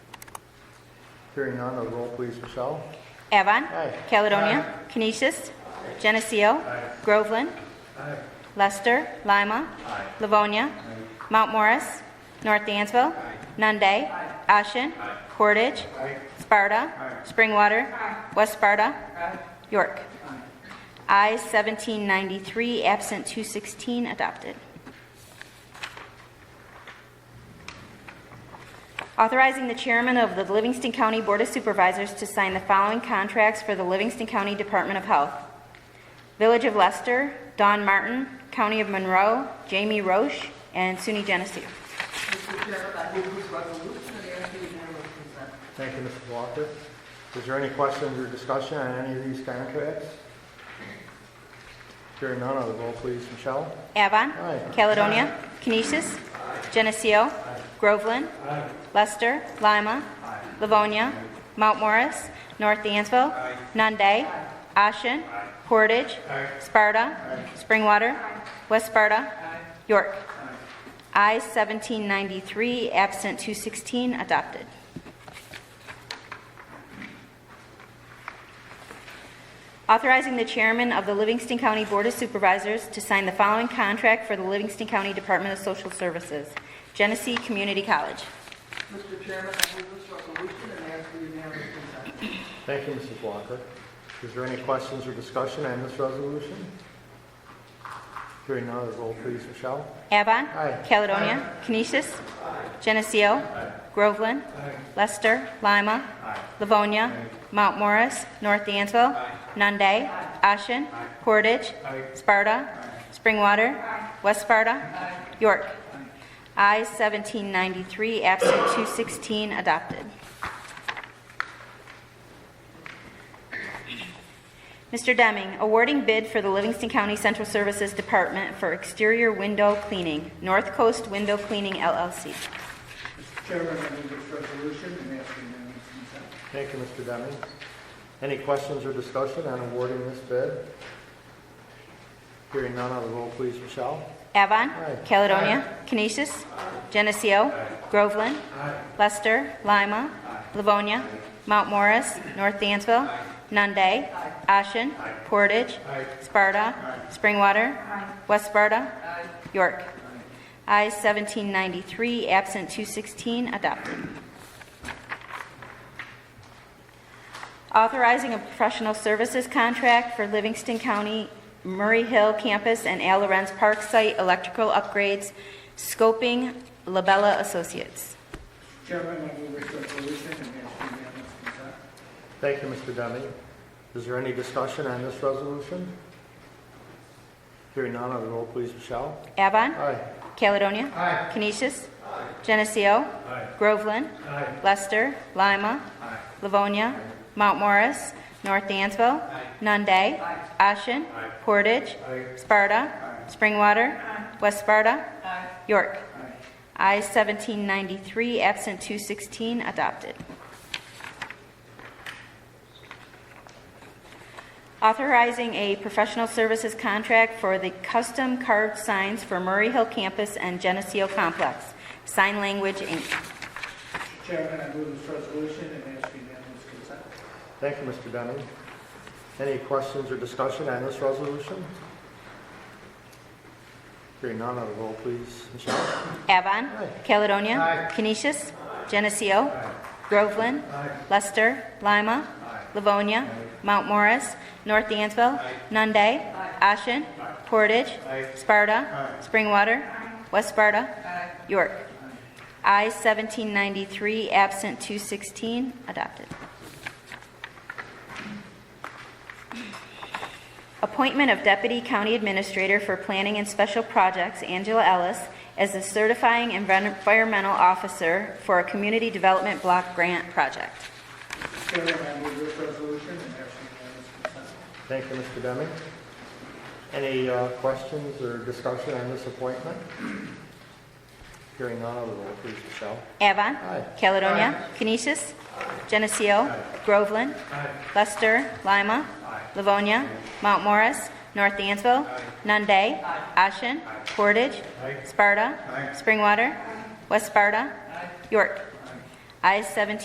Hearing none, a roll please, Michelle. Avon. Aye. Caledonia. Canisius. Geneseo. Groveland. Lester. Lima. Livonia. Mount Morris. North Dansville. Nunde. Ashen. Portage. Sparta. Springwater. West Sparta. York. I 1793, absent 216, adopted. Authorizing the chairman of the Livingston County Board of Supervisors to sign the following contracts for the Livingston County Department of Health. Village of Lester, Don Martin, County of Monroe, Jamie Roche, and SUNY Geneseo. Mr. Chairman, I move this resolution and ask you to unanimous consent. Thank you, Mrs. Walker. Is there any questions or discussion on any of these contracts? Hearing none, a roll please, Michelle. Avon. Aye. Caledonia. Canisius. Geneseo. Groveland. Lester. Lima. Livonia. Mount Morris. North Dansville. Nunde. Ashen. Portage. Sparta. Springwater. West Sparta. York. I 1793, absent 216, adopted. Authorizing the chairman of the Livingston County Board of Supervisors to sign the following contract for the Livingston County Department of Social Services, Genesee Community College. Mr. Chairman, I move this resolution and ask you to unanimous consent. Thank you, Mrs. Walker. Is there any questions or discussion on this resolution? Hearing none, a roll please, Michelle. Avon. Aye. Caledonia. Canisius. Geneseo. Groveland. Lester. Lima. Livonia. Mount Morris. North Dansville. Nunde. Ashen. Portage. Sparta. Springwater. West Sparta. York. I 1793, absent 216, adopted. Mr. Deming, awarding bid for the Livingston County Central Services Department for exterior window cleaning, North Coast Window Cleaning LLC. Mr. Chairman, I move this resolution and ask you to unanimous consent. Thank you, Mr. Deming. Any questions or discussion on awarding this bid? Hearing none, a roll please, Michelle. Avon. Aye. Caledonia. Canisius. Geneseo. Groveland. Lester. Lima. Livonia. Mount Morris. North Dansville. Nunde. Ashen. Portage. Sparta. Springwater. West Sparta. York. I 1793, absent 216, adopted. Authorizing a professional services contract for Livingston County Murray Hill Campus and Al Lorenz Park Site electrical upgrades, scoping Labella Associates. Mr. Chairman, I move this resolution and ask you to unanimous consent. Thank you, Mr. Deming. Is there any discussion on this resolution? Hearing none, a roll please, Michelle. Avon. Aye. Caledonia. Canisius. Geneseo. Groveland. Lester. Lima. Livonia. Mount Morris. North Dansville. Nunde. Ashen. Portage. Sparta. Springwater. West Sparta. York. I 1793, absent 216, adopted. Authorizing a professional services contract for the custom carved signs for Murray Hill Campus and Geneseo Complex, Sign Language, Inc. Mr. Chairman, I move this resolution and ask you to unanimous consent. Thank you, Mr. Deming. Any questions or discussion on this resolution? Hearing none, a roll please, Michelle. Avon. Aye. Caledonia. Canisius. Geneseo. Groveland. Lester. Lima. Livonia. Mount Morris. North Dansville. Nunde. Ashen. Portage. Sparta. Springwater. West Sparta. York. I 1793, absent 216, adopted. Appointment of Deputy County Administrator for Planning and Special Projects, Angela Ellis, as the certifying envir- environmental officer for a community development block grant project. Mr. Chairman, I move this resolution and ask you to unanimous consent. Thank you, Mr. Deming. Any uh, questions or discussion on this appointment? Hearing none, a roll please, Michelle. Avon. Aye. Caledonia. Canisius. Geneseo. Groveland. Lester. Lima. Livonia. Mount Morris. North Dansville. Nunde. Ashen. Portage. Sparta. Springwater. West Sparta. York. I-17